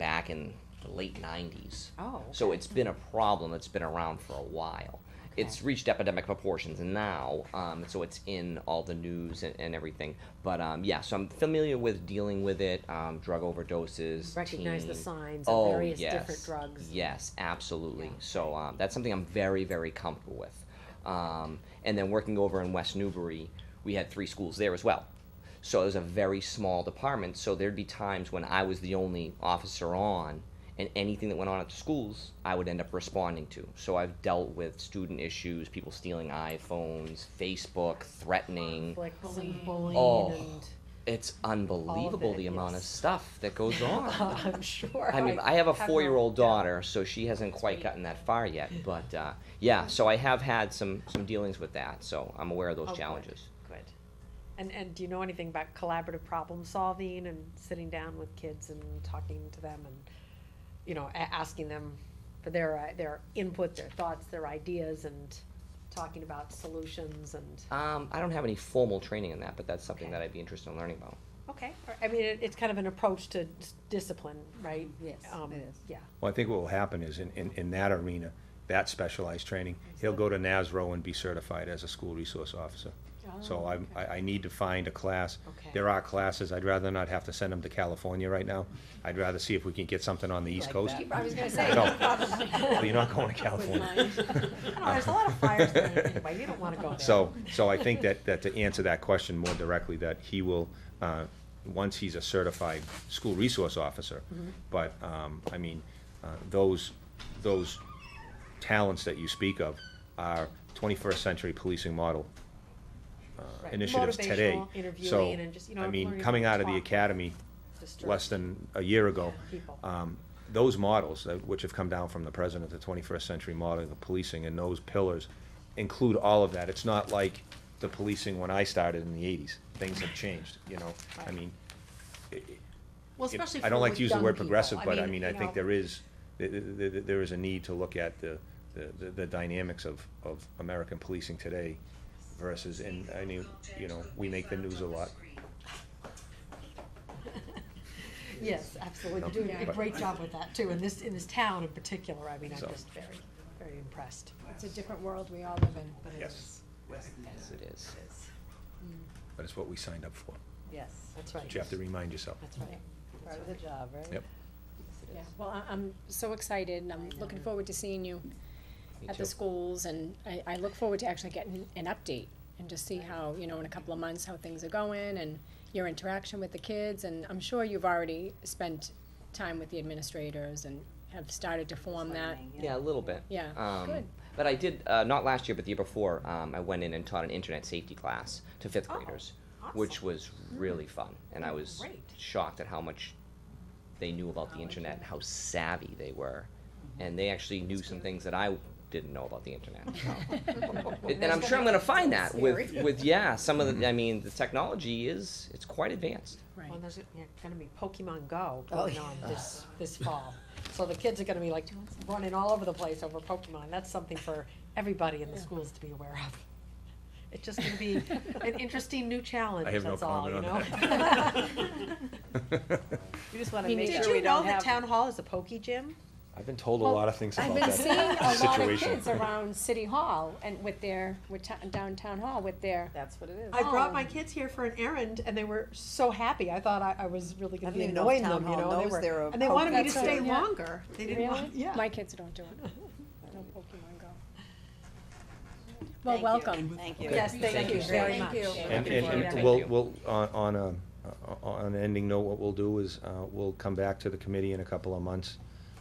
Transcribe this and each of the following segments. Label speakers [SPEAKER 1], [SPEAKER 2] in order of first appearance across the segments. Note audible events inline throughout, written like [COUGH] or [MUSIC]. [SPEAKER 1] back in the late 90s.
[SPEAKER 2] Oh,
[SPEAKER 1] So it's been a problem that's been around for a while. It's reached epidemic proportions now, um, so it's in all the news and, and everything. But um, yeah, so I'm familiar with dealing with it, um, drug overdoses.
[SPEAKER 2] Recognize the
[SPEAKER 1] teen-
[SPEAKER 2] signs of
[SPEAKER 1] Oh,
[SPEAKER 2] various
[SPEAKER 1] yes.
[SPEAKER 2] different drugs.
[SPEAKER 1] Yes, absolutely.
[SPEAKER 2] Yeah.
[SPEAKER 1] So um, that's something I'm very, very comfortable with. Um, and then working over in West Newbury, we had three schools there as well. So it was a very small department. So there'd be times when I was the only officer on, and anything that went on at the schools, I would end up responding to. So I've dealt with student issues, people stealing iPhones, Facebook, threatening.
[SPEAKER 2] Like bullying,
[SPEAKER 1] Oh.
[SPEAKER 2] and
[SPEAKER 1] It's unbelievable
[SPEAKER 2] it,
[SPEAKER 1] the amount of
[SPEAKER 2] yes.
[SPEAKER 1] stuff that
[SPEAKER 2] [LAUGHS]
[SPEAKER 1] goes on. [LAUGHS]
[SPEAKER 2] I'm sure.
[SPEAKER 1] Oh. I mean, I have a
[SPEAKER 2] have
[SPEAKER 1] four-year-old daughter, so she hasn't quite gotten that far yet. But uh, yeah, so I have had some some dealings with that, so I'm aware of
[SPEAKER 2] Oh,
[SPEAKER 1] those
[SPEAKER 2] good,
[SPEAKER 1] challenges.
[SPEAKER 2] Good. And, and do you know anything about collaborative problem solving and sitting down with kids and talking to them and, you know, a- asking them for their, uh, their input, their thoughts, their ideas and talking about solutions and,
[SPEAKER 1] Um, I don't have any formal training in that, but that's something
[SPEAKER 2] Okay.
[SPEAKER 1] that I'd be interested in learning about.
[SPEAKER 2] okay. or- I mean, it, it's kind of an approach to s- discipline, right?
[SPEAKER 3] Yes,
[SPEAKER 2] Um,
[SPEAKER 3] it is.
[SPEAKER 2] Yeah.
[SPEAKER 4] Well, I think what will happen is in, in, in that arena, that specialized training, he'll go to NASRO and be certified as a school resource officer. So
[SPEAKER 2] Oh,
[SPEAKER 4] I'm,
[SPEAKER 2] okay.
[SPEAKER 4] I, I need to find a class.
[SPEAKER 2] Okay.
[SPEAKER 4] There are classes, I'd rather not have to send them to California right now. I'd rather see if we can get something on the East Coast.
[SPEAKER 2] I was
[SPEAKER 4] [LAUGHS]
[SPEAKER 2] gonna
[SPEAKER 4] I
[SPEAKER 2] say.
[SPEAKER 4] don't.
[SPEAKER 2] [LAUGHS] probably.
[SPEAKER 4] Well, you're not going to California. [LAUGHS]
[SPEAKER 2] I don't know, There's a lot of fires there anyway, you don't wanna go there.
[SPEAKER 4] So, so I think that, that to answer that question more directly, that he will, uh, once he's a certified school resource officer,
[SPEAKER 2] Mm-hmm.
[SPEAKER 4] but, um, I mean, uh, those, those talents that you speak of are twenty-first century policing model uh,
[SPEAKER 2] Right.
[SPEAKER 4] initiatives today.
[SPEAKER 2] Motivational
[SPEAKER 4] So,
[SPEAKER 2] interviewing and just, you know,
[SPEAKER 4] I mean,
[SPEAKER 2] learning
[SPEAKER 4] coming
[SPEAKER 2] how to
[SPEAKER 4] out of the
[SPEAKER 2] talk.
[SPEAKER 4] academy
[SPEAKER 2] Just
[SPEAKER 4] less
[SPEAKER 2] to-
[SPEAKER 4] than a year ago,
[SPEAKER 2] People.
[SPEAKER 4] um, those models, that- which have come down from the president, the twenty-first century model of policing, and those pillars include all of that. It's not like the policing when I started in the eighties. Things have changed, you know? I
[SPEAKER 2] Right.
[SPEAKER 4] mean,
[SPEAKER 3] Well,
[SPEAKER 4] it-
[SPEAKER 3] especially
[SPEAKER 4] I don't
[SPEAKER 3] for
[SPEAKER 4] like
[SPEAKER 3] with
[SPEAKER 4] to use the
[SPEAKER 3] young
[SPEAKER 4] word
[SPEAKER 3] people.
[SPEAKER 4] progressive, but I mean, I
[SPEAKER 2] you know-
[SPEAKER 4] think there is, th- th- th- th- there is a need to look at the, the- the- the dynamics of, of American policing today versus, and I mean, you know, we make the news a lot.
[SPEAKER 2] [LAUGHS] Yes, absolutely,
[SPEAKER 4] No,
[SPEAKER 2] you're doing a
[SPEAKER 4] but-
[SPEAKER 2] great job with that too, in this, in this town in particular, I mean, I'm
[SPEAKER 4] So.
[SPEAKER 2] just very, very impressed.
[SPEAKER 5] It's a different world we all live in.
[SPEAKER 2] But it
[SPEAKER 4] Yes.
[SPEAKER 2] is-
[SPEAKER 1] Yes, it is.
[SPEAKER 4] But it's what we signed up for.
[SPEAKER 3] Yes,
[SPEAKER 2] That's
[SPEAKER 4] But you
[SPEAKER 2] right,
[SPEAKER 4] have to remind yourself.
[SPEAKER 2] that's right.
[SPEAKER 3] part of the job, right?
[SPEAKER 4] Yep.
[SPEAKER 3] Yes,
[SPEAKER 5] yeah, well, I- I'm so excited and I'm looking forward to seeing you
[SPEAKER 1] Me
[SPEAKER 5] at the
[SPEAKER 1] too.
[SPEAKER 5] schools and I, I look forward to actually getting an update and just see how, you know, in a couple of months, how things are going and your interaction with the kids and I'm sure you've already spent time with the administrators and have started to form that.
[SPEAKER 1] Yeah, a little bit.
[SPEAKER 5] Yeah,
[SPEAKER 1] Um,
[SPEAKER 5] good.
[SPEAKER 1] But I did uh, not last year, but the year before. Um, I went in and taught an internet safety class to fifth
[SPEAKER 2] Oh,
[SPEAKER 1] graders, which was really fun, and I was
[SPEAKER 2] Great.
[SPEAKER 1] shocked at how much they knew about the internet and how savvy they were, and they actually knew some things that I didn't know about the internet. It- and I'm sure I'm going to find that with with yeah some of the. I mean, the technology is it's quite advanced.
[SPEAKER 5] Right.
[SPEAKER 2] Well, there's yeah, gonna be Pokemon Go
[SPEAKER 5] Oh,
[SPEAKER 2] going
[SPEAKER 5] yeah.
[SPEAKER 2] on [LAUGHS] this, this fall. So the kids are gonna be like running all over the place over Pokemon. That's something for everybody in the schools to be aware of. It's just gonna be
[SPEAKER 3] [LAUGHS]
[SPEAKER 2] an interesting new challenge,
[SPEAKER 4] I have no
[SPEAKER 2] that's all, you
[SPEAKER 4] comment
[SPEAKER 2] know?
[SPEAKER 4] on
[SPEAKER 2] [LAUGHS]
[SPEAKER 4] [LAUGHS]
[SPEAKER 3] We just wanna
[SPEAKER 5] Me
[SPEAKER 3] make
[SPEAKER 5] neither.
[SPEAKER 2] Did
[SPEAKER 3] sure
[SPEAKER 5] Did
[SPEAKER 3] we
[SPEAKER 2] you know
[SPEAKER 3] don't
[SPEAKER 2] that
[SPEAKER 3] have.
[SPEAKER 2] town hall is a pokey gym?
[SPEAKER 4] I've been told a lot of things
[SPEAKER 5] I've
[SPEAKER 4] about
[SPEAKER 5] been
[SPEAKER 4] that
[SPEAKER 5] seeing a lot of
[SPEAKER 4] situation.
[SPEAKER 5] kids [LAUGHS] around City Hall and with their, with ta- downtown hall with their,
[SPEAKER 3] That's what it is.
[SPEAKER 2] I brought
[SPEAKER 5] Oh.
[SPEAKER 2] my kids here for an errand, and they were so happy. I thought I, I was really
[SPEAKER 3] I
[SPEAKER 2] going to
[SPEAKER 3] don't
[SPEAKER 2] be
[SPEAKER 3] even know if
[SPEAKER 2] annoying
[SPEAKER 3] town
[SPEAKER 2] them, you
[SPEAKER 3] hall
[SPEAKER 2] know. They
[SPEAKER 3] knows
[SPEAKER 2] were,
[SPEAKER 3] they're a
[SPEAKER 2] and they wanted me to
[SPEAKER 5] That's
[SPEAKER 2] stay
[SPEAKER 5] right, yeah.
[SPEAKER 2] longer. They didn't want,
[SPEAKER 5] really?
[SPEAKER 2] yeah.
[SPEAKER 5] My kids don't do it. No Pokemon Go. Well, welcome.
[SPEAKER 3] Thank you.
[SPEAKER 2] yes, thank,
[SPEAKER 1] Thank
[SPEAKER 2] you
[SPEAKER 1] you.
[SPEAKER 2] very
[SPEAKER 3] Thank
[SPEAKER 2] much.
[SPEAKER 3] you.
[SPEAKER 4] And,
[SPEAKER 1] Looking
[SPEAKER 4] and,
[SPEAKER 1] forward to
[SPEAKER 4] and
[SPEAKER 1] it.
[SPEAKER 4] we'll,
[SPEAKER 1] Thank you.
[SPEAKER 4] we'll, on, on a, uh, on an ending note, what we'll do is, uh, we'll come back to the committee in a couple of months.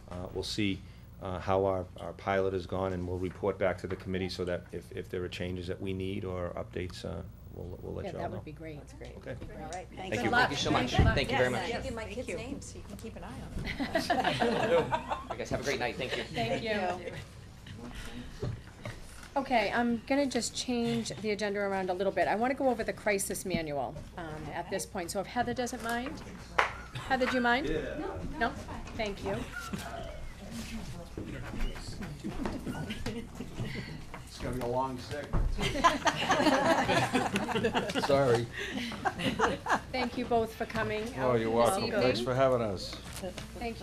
[SPEAKER 4] Uh, we'll see, uh, how our, our pilot has gone and we'll report back to the committee so that if, if there are changes that we need or updates, uh, we'll, we'll let
[SPEAKER 5] Yeah,
[SPEAKER 4] you all
[SPEAKER 5] that
[SPEAKER 4] know.
[SPEAKER 5] would be great.
[SPEAKER 3] That's great.
[SPEAKER 4] Okay.
[SPEAKER 3] All right, thank
[SPEAKER 1] Thank you.
[SPEAKER 3] you.
[SPEAKER 1] Thank you so much. Thank you very much.
[SPEAKER 6] Give my
[SPEAKER 2] Thank
[SPEAKER 6] kids
[SPEAKER 2] you.
[SPEAKER 6] names, so you can keep an eye on them.
[SPEAKER 3] [LAUGHS]
[SPEAKER 1] [LAUGHS] You guys have a great night. Thank you.
[SPEAKER 5] Thank you. Okay, I'm gonna just change the agenda around a little bit. I wanna go over the crisis manual, um, at this point, so if Heather doesn't mind? Heather, do you mind? No, thank you.
[SPEAKER 7] It's gonna be a long segment.
[SPEAKER 4] Sorry.
[SPEAKER 5] Thank you both for coming
[SPEAKER 7] Oh,
[SPEAKER 5] out
[SPEAKER 7] you're
[SPEAKER 5] this
[SPEAKER 7] welcome.
[SPEAKER 5] evening.
[SPEAKER 7] Thanks for having us.
[SPEAKER 5] Thank